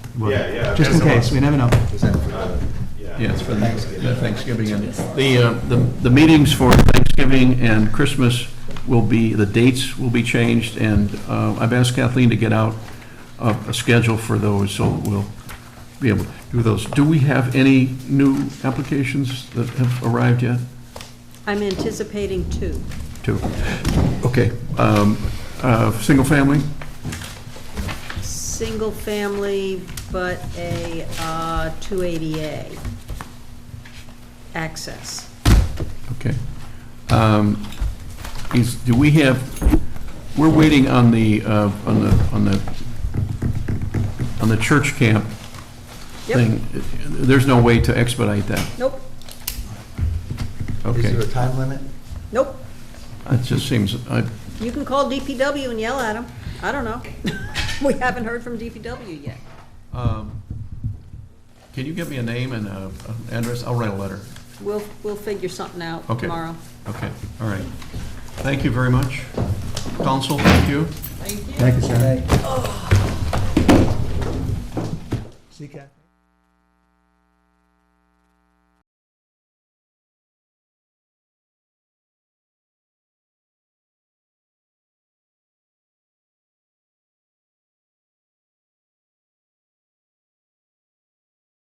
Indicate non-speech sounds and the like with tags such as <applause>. Right. Yeah, yeah. Just in case, we never know. Uh, Yeah. Yes, for Thanksgiving. Thanksgiving, and the, uh, the the meetings for Thanksgiving and Christmas will be, the dates will be changed, and uh, I've asked Kathleen to get out a a schedule for those, so we'll be able to do those. Do we have any new applications that have arrived yet? I'm anticipating two. Two. Okay. Um, uh, Single family? Single family, but a uh, 280A access. Okay. Um, Is, do we have, we're waiting on the, uh, on the, on the, on the church camp Yep. thing. There's no way to expedite that, Nope, Is there a okay? time limit? nope. It just seems, I, You can call DPW and yell at them. I don't know. <laughs> We haven't heard from DPW yet. um, can you give me a name and a- an address? I'll write a letter. We'll, we'll figure something out Okay. tomorrow. Okay, all right. Thank you very much. Council, thank you. Thank you, sir. See, Kath?